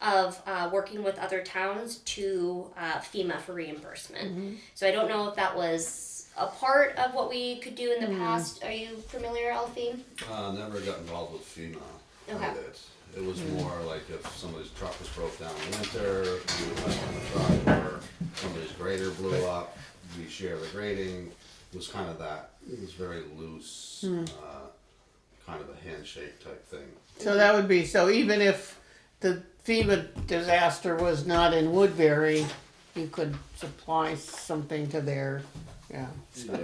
of uh, working with other towns to uh, FEMA for reimbursement. So I don't know if that was a part of what we could do in the past. Are you familiar, Alfie? Uh, never got involved with FEMA. Okay. with it. It was more like if somebody's truck was broke down in winter, we would rent on the truck, or somebody's grader blew up, we share the grading. It was kind of that, it was very loose, uh, kind of a handshake type thing. So that would be, so even if the FEMA disaster was not in Woodbury, you could supply something to their, yeah. Yeah.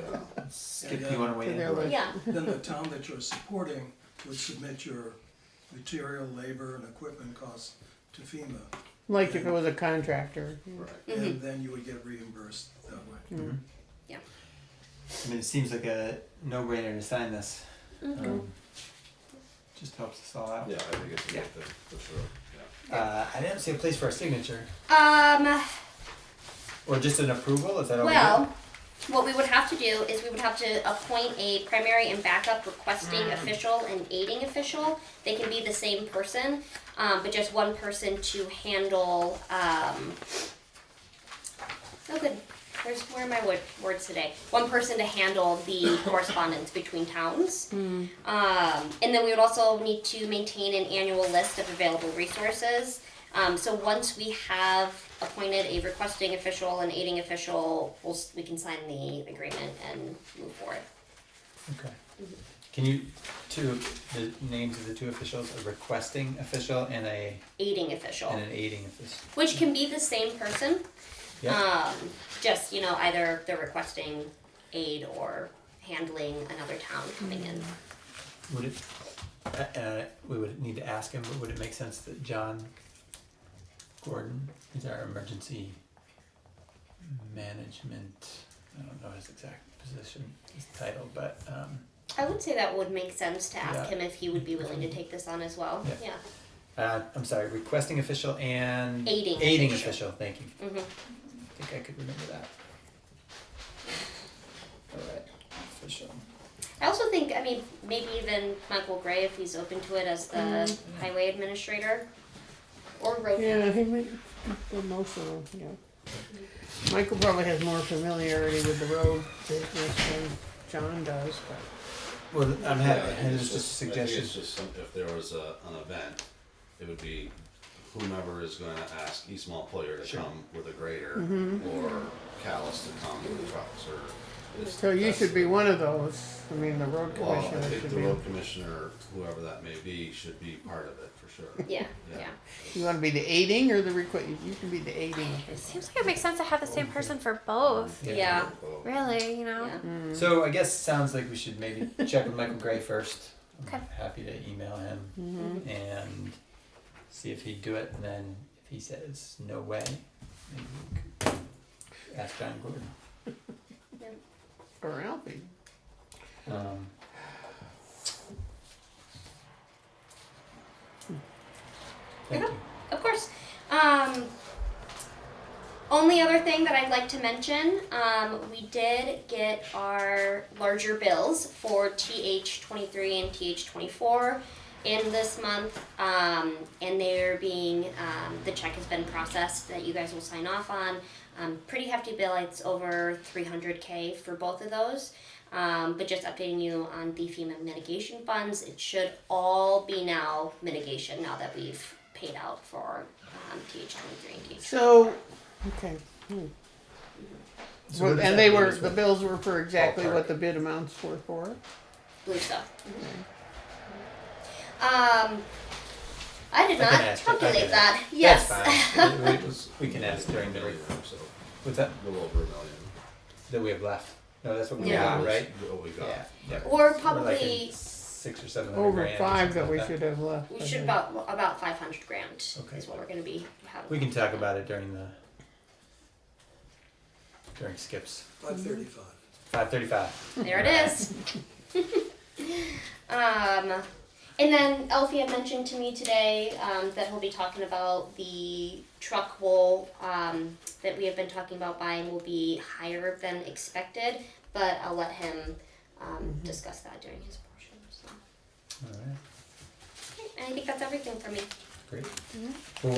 Skip, you wanna weigh in? They're like- Yeah. then the town that you're supporting would submit your material, labor, and equipment costs to FEMA. Like if it was a contractor. Right. And then you would get reimbursed that way. I mean, it seems like a no-brainer to sign this. Um, Just helps us all out. Yeah, I think it's a Yeah. good thing, for sure, yeah. Uh, I didn't see a place for a signature, Um, or just an approval, is that all we well, what we would have to do is we would have to appoint a primary and backup requesting official and aiding official. They can be the same person, um, but just one person to handle. Um, oh, good. Where's, where are my word, words today? One person to handle the correspondence between towns. Um, and then we would also need to maintain an annual list of available resources. Um, so once we have appointed a requesting official and aiding official, we'll, s- we can sign the agreement and move forward. Okay. Can you, two, the names of the two officials, a requesting official and a, Aiding official, and an aiding official? which can be the same person, Yeah, um, just you know either they're requesting aid or handling another town coming in. would it, uh, uh, we would need to ask him, but would it make sense that John Gordon is our emergency management, I don't know his exact position, his title, but, um, I would say that would make sense to ask Yeah. him if he would be willing to take this on as well. Yeah. Uh, I'm sorry, requesting official and Aiding aiding official. official. Thank you. Mhm. I think I could remember that. All right, official. I also think, I mean, maybe even Michael Gray, if he's open to it as the highway administrator or road. Yeah, he might, well, most of them, yeah. Michael probably has more familiarity with the road business than John does, but. Well, I'm Yeah, I happy. think It was it's just a I think suggestion. It's just some, if there was a, an event, it would be whomever is gonna ask East Montpelier to Sure. come with a grader or Callis to come with trucks or. it's- So you that's- should be one of those, I mean, the road Well, Oh, I commissioner think should the be, road commissioner, whoever that may be, should be part of it for sure. Yeah, Yeah. yeah. you wanna be the aiding or the request, you can be the aiding. It seems like it makes sense to have the same person for both. Yeah. Well, Really, you know? yeah. So I guess sounds like we should maybe check with Michael Gray first. I'm Okay. Happy to email him Mm-hmm. and see if he'd do it. And then if he says no way, maybe we could ask John Gordon. Or Alfie. Um, Thank you. Of course. Um, only other thing that I'd like to mention, um, we did get our larger bills for TH23 and TH24 in this month, um, and they're being, um, the check has been processed that you guys will sign off on. Um, pretty hefty bill, it's over 300K for both of those. Um, but just updating you on the FEMA mitigation funds, it should all be now mitigation now that we've paid out for um, TH23 and TH. So, okay. hmm. So Well, what and does that they mean were, is the what- bills were for exactly Ballpark. what the bid amounts were for. Believe so. Mm-hmm. Um, I did I can not ask it, I can calculate ask. that. That's Yes. fine. We- It we- was We can ask during the break. million, so a What's that? little over a million. That we have left. No, that's what we Yeah. That got, was right? What we got. Yeah. yeah. Or We're like in probably six or seven hundred Over Oh, grand or five that something we like should have left. we I should think. about about 500 grand Okay. is what we're going to be having. We can talk about it during the during skips. Five thirty-five. Five thirty-five. There it is. um, and then Alfie had mentioned to me today um, that he'll be talking about the truck wool um, that we have been talking about buying will be higher than expected, but I'll let him um, discuss that during his portion. So. All right. And I think that's everything for me. Great.